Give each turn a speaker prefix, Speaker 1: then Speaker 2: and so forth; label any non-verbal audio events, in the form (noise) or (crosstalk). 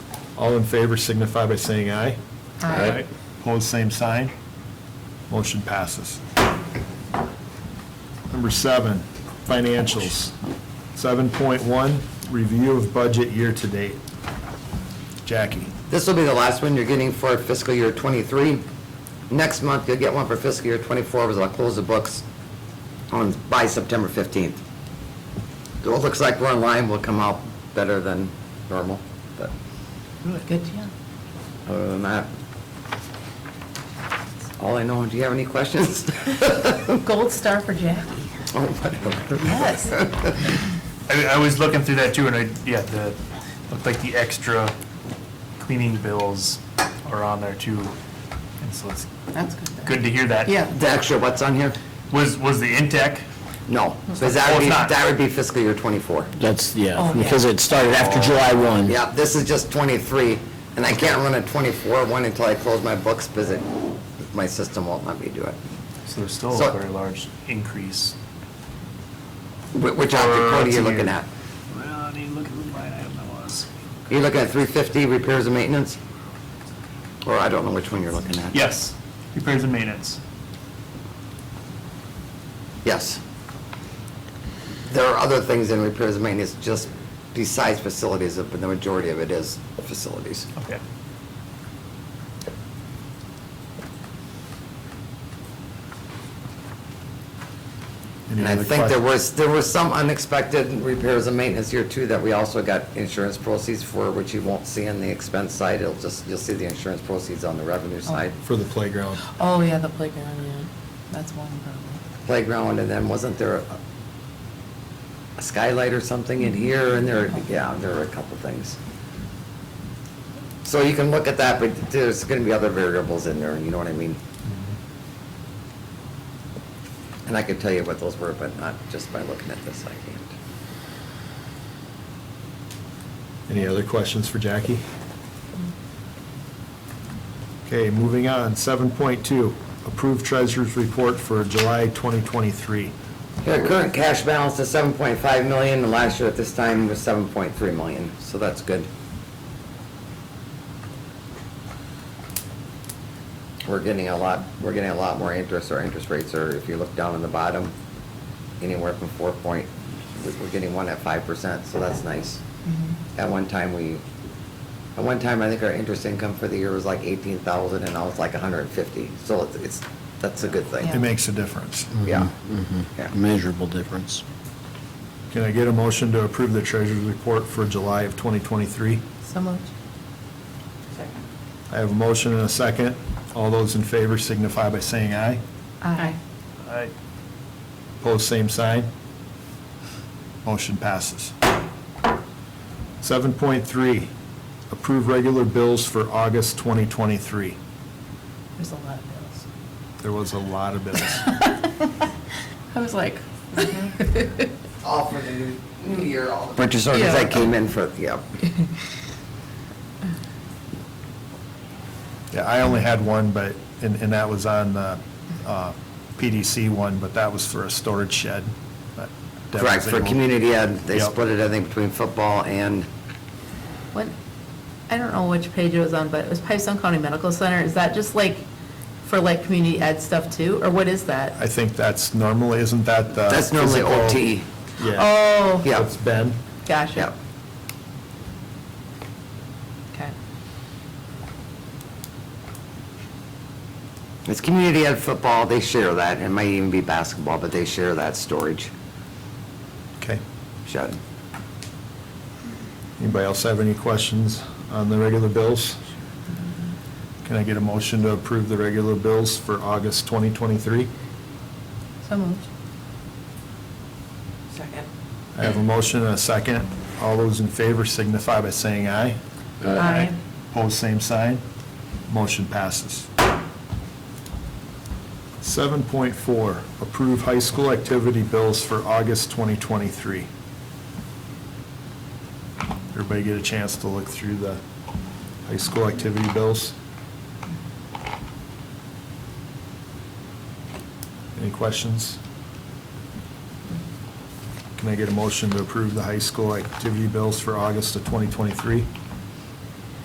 Speaker 1: All in favor signify by saying aye.
Speaker 2: Aye.
Speaker 1: Opposed, same sign. Motion passes. Number seven, financials. 7.1, review of budget year-to-date. Jackie,
Speaker 2: This will be the last one you're getting for fiscal year '23. Next month, you'll get one for fiscal year '24, because I'll close the books on, by September 15th. So It looks like we're in line, we'll come out better than normal, but
Speaker 3: Good, yeah.
Speaker 2: other than that, all I know, do you have any questions?
Speaker 3: Gold star for Jackie.
Speaker 2: Oh, whatever.
Speaker 3: Yes.
Speaker 4: I, I was looking through that too, and I, yeah, the, looked like the extra cleaning bills are on there too. And so it's
Speaker 3: That's good.
Speaker 4: good to hear that.
Speaker 3: Yeah.
Speaker 2: (laughs) The extra, what's on here?
Speaker 4: Was, was the intake?
Speaker 2: No, because that
Speaker 4: Oh,
Speaker 2: would
Speaker 4: it's
Speaker 2: be,
Speaker 4: not.
Speaker 2: that would be fiscal year '24.
Speaker 5: That's,
Speaker 3: Oh,
Speaker 5: yeah,
Speaker 3: yeah.
Speaker 5: because it started after July 1.
Speaker 2: Yeah, this is just 23, and I can't run a 24 one until I close my books, because it, my system won't let me do it.
Speaker 4: So there's still
Speaker 2: So-
Speaker 4: a very large increase.
Speaker 2: Wh- Which option code are you looking at?
Speaker 4: Well, I need to look at the line item that was.
Speaker 2: You're looking at 350 repairs and maintenance? Or I don't know which one you're looking at.
Speaker 4: Yes, repairs and maintenance.
Speaker 2: Yes. There are other things in repairs and maintenance, just besides facilities, but the majority of it is facilities.
Speaker 4: Okay.
Speaker 1: any
Speaker 2: And I
Speaker 1: other
Speaker 2: think there
Speaker 1: questions?
Speaker 2: was, there were some unexpected repairs and maintenance here too that we also got insurance proceeds for, which you won't see on the expense side. It'll just, you'll see the insurance proceeds on the revenue side.
Speaker 1: For the playground.
Speaker 3: Oh, yeah, the playground, yeah. That's one problem.
Speaker 2: Playground and then wasn't there a- a skylight or something in here and there, yeah, there were a couple things. So you can look at that, but there's gonna be other variables in there, you know what I mean? And I could tell you what those were, but not just by looking at this, I can't.
Speaker 1: Any other questions for Jackie? Okay, moving on, 7.2, approved treasurer's report for July 2023.
Speaker 2: Their current cash balance is seven point five million, and last year at this time was seven point three million, so that's good. We're getting a lot, we're getting a lot more interest, our interest rates are, if you look down in the bottom, anywhere from four point, we- we're getting one at five percent, so that's nice. At one time, we, at one time, I think our interest income for the year was like eighteen thousand, and now it's like hundred and fifty, so it's- it's, that's a good
Speaker 3: Yeah.
Speaker 1: It
Speaker 2: thing.
Speaker 1: makes a difference.
Speaker 2: Yeah.
Speaker 5: Mhm.
Speaker 2: Yeah.
Speaker 5: Measurable difference.
Speaker 1: Can I get a motion to approve the treasurer's report for July of 2023?
Speaker 3: So much.
Speaker 1: I have a motion and a second. All those in favor signify by saying aye.
Speaker 3: Aye.
Speaker 4: I,
Speaker 1: Opposed, same sign. Motion passes. 7.3, approve regular bills for August 2023.
Speaker 3: There's a lot of bills.
Speaker 1: There was a lot of
Speaker 2: (laughs)
Speaker 1: bills.
Speaker 3: I was like.
Speaker 2: All for the new, new year, all the.
Speaker 3: Purchase orders.
Speaker 2: I
Speaker 3: Yeah.
Speaker 2: came in for, yeah.
Speaker 1: Yeah, I only had one, but, and, and that was on the uh, PDC one, but that was for a storage shed. but that
Speaker 2: Correct,
Speaker 1: was
Speaker 2: for
Speaker 1: able-
Speaker 2: community ed, they
Speaker 1: Yep.
Speaker 2: split it, I think, between football and,
Speaker 3: What, I don't know which page it was on, but it was Pipestone County Medical Center. Is that just like for like community ed stuff too, or what is that?
Speaker 1: I think that's normally, isn't that the?
Speaker 2: that's normally
Speaker 1: physical-
Speaker 2: OT.
Speaker 1: Yeah.
Speaker 3: Oh,
Speaker 2: Yeah.
Speaker 1: It's Ben.
Speaker 3: gotcha.
Speaker 2: Yep.
Speaker 3: Okay.
Speaker 2: It's community ed football, they share that, it might even be basketball, but they share that storage
Speaker 1: Okay.
Speaker 2: shed.
Speaker 1: Anybody else have any questions on the regular bills? Can I get a motion to approve the regular bills for August 2023?
Speaker 3: So moved.
Speaker 1: I have a motion and a second. All those in favor signify by saying aye.
Speaker 3: Aye.
Speaker 1: Pose same sign. Motion passes. 7.4, approve high school activity bills for August 2023. Everybody get a chance to look through the high school activity bills? Any questions? Can I get a motion to approve the high school activity bills for August of 2023?